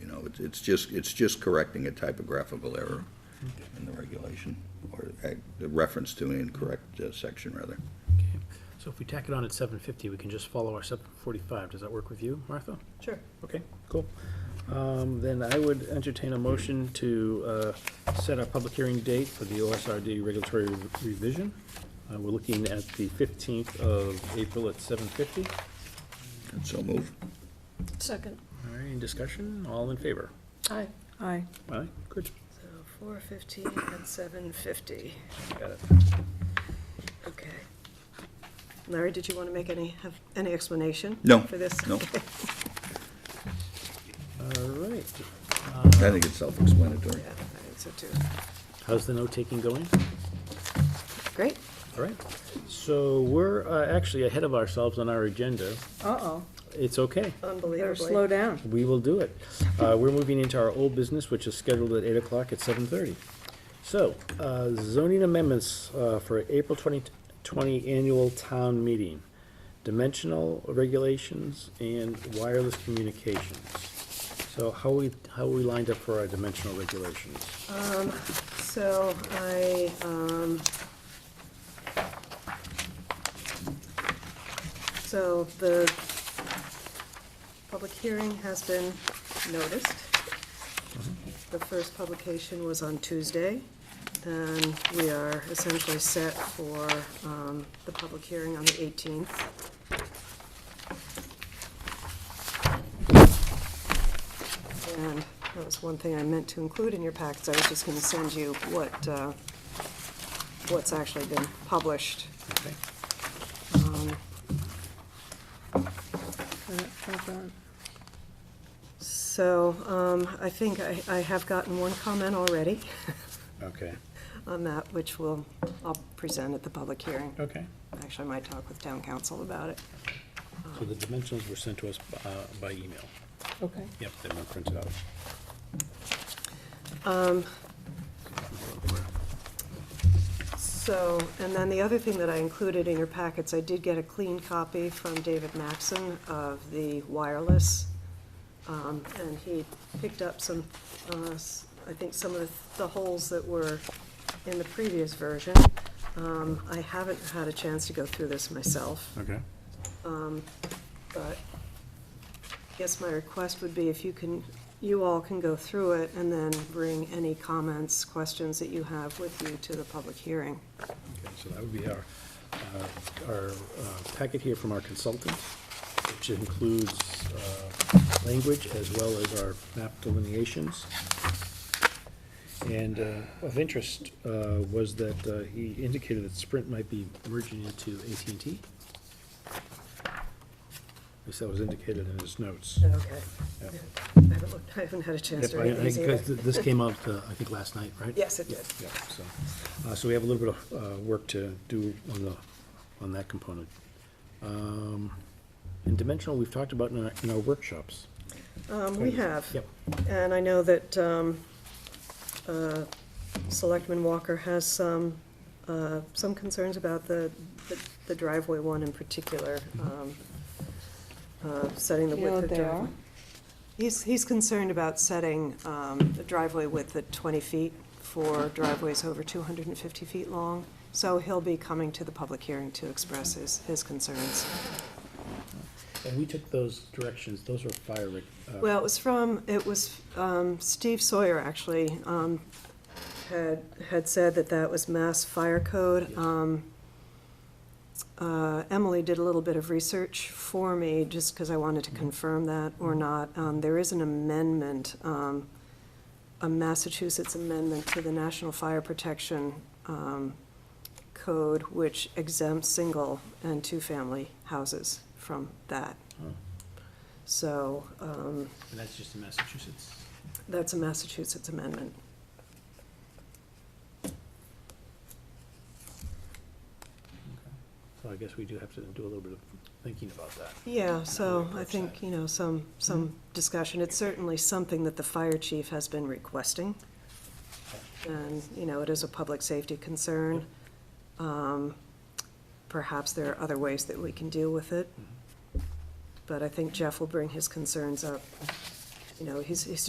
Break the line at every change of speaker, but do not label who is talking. It's- It's just, it's just correcting a typographical error in the regulation, or uh, the reference to an incorrect uh, section, rather.
Okay. So if we tack it on at seven fifty, we can just follow our seven forty-five. Does that work with you, Martha?
Sure.
Okay, cool. Um, Then I would entertain a motion to uh, set our public hearing date for the OSRD regulatory revision. Uh, We're looking at the 15th of April at 7:50.
And So move.
Second.
All right, any discussion? All in favor?
Aye.
Aye.
All right, good.
So four fifteen and seven fifty.
Got it.
Okay. Larry, did you want to make any, have any explanation?
No,
For this?
no.
Okay.
All right.
I think it's self-explanatory.
Yeah, I think so too.
How's the note-taking going?
Great.
All right. So we're uh, actually ahead of ourselves on our agenda.
Uh-oh,
It's okay.
better
Unbelievably.
slow down.
We will do it. Uh, We're moving into our old business, which is scheduled at eight o'clock at seven thirty. So, uh, zoning amendments uh, for April twenty twenty annual town meeting, dimensional regulations and wireless communications. So how we, how are we lined up for our dimensional regulations?
So I, um, so the public hearing has been noticed. The first publication was on Tuesday, and we are essentially set for, um, the public hearing on the eighteenth. And that was one thing I meant to include in your packets, I was just gonna send you what, uh, what's actually been published. um,
Okay.
Uh, hold on.
So, um, I think I, I have gotten one comment already
Okay,
on that, which will, I'll present at the public hearing.
okay.
Actually, I might talk with town council about it.
So the dimensionals were sent to us uh, by email.
Okay.
Yep, they were printed out.
So, and then the other thing that I included in your packets, I did get a clean copy from David Maxon of the wireless. Um, and he picked up some, uh, s- I think some of the- the holes that were in the previous version. Um, I haven't had a chance to go through this myself. Um,
Okay.
but I guess my request would be if you can, you all can go through it and then bring any comments, questions that you have with you to the public hearing.
Okay, so that would be our, uh, our uh, packet here from our consultant, which includes uh, language as well as our map delineations. And uh, of interest uh, was that uh, he indicated that Sprint might be merging into at and t At least that was indicated in his notes.
Okay.
Yep.
I haven't looked, I haven't had a chance
Yep,
to
I- I
read these
think 'cause
either.
th- This came out, uh, I think, last night, right?
Yes, it did.
Yeah, yeah, so, uh, so we have a little bit of, uh, work to do on the, on that component. Um, and dimensional, we've talked about in our, in our workshops.
Um, we have.
Yep.
And I know that, um, uh, Selectman Walker has some, uh, some concerns about the, the- the driveway one in particular,
Mm-hmm.
um, uh, setting the
You know
width
what
of
they
driveway.
are?
He's, he's concerned about setting um, the driveway width at 20 feet for driveways over 250 feet long, so he'll be coming to the public hearing to express his, his concerns.
And we took those directions, those were fire, reg- uh,
Well, it was from, it was um, Steve Sawyer, actually, um, had, had said that that was Mass Fire Code.
Yes.
Um, uh, Emily did a little bit of research for me, just because I wanted to confirm that or not. Um, There is an amendment, um, a Massachusetts amendment to the National Fire Protection um, Code, which exempts single and two-family houses from that.
Oh.
So, um,
and that's just in Massachusetts.
that's a Massachusetts amendment.
So I guess we do have to do a little bit of thinking about that.
Yeah, so
really
I Mm-hmm. think,
upset.
you know, some, some discussion. It's certainly something that the fire chief has been requesting. And, you know, it is a public safety concern. Um, Perhaps there are other ways that we can deal with Mm-hmm. it. But I think Jeff will bring his concerns up. You know, he's, he's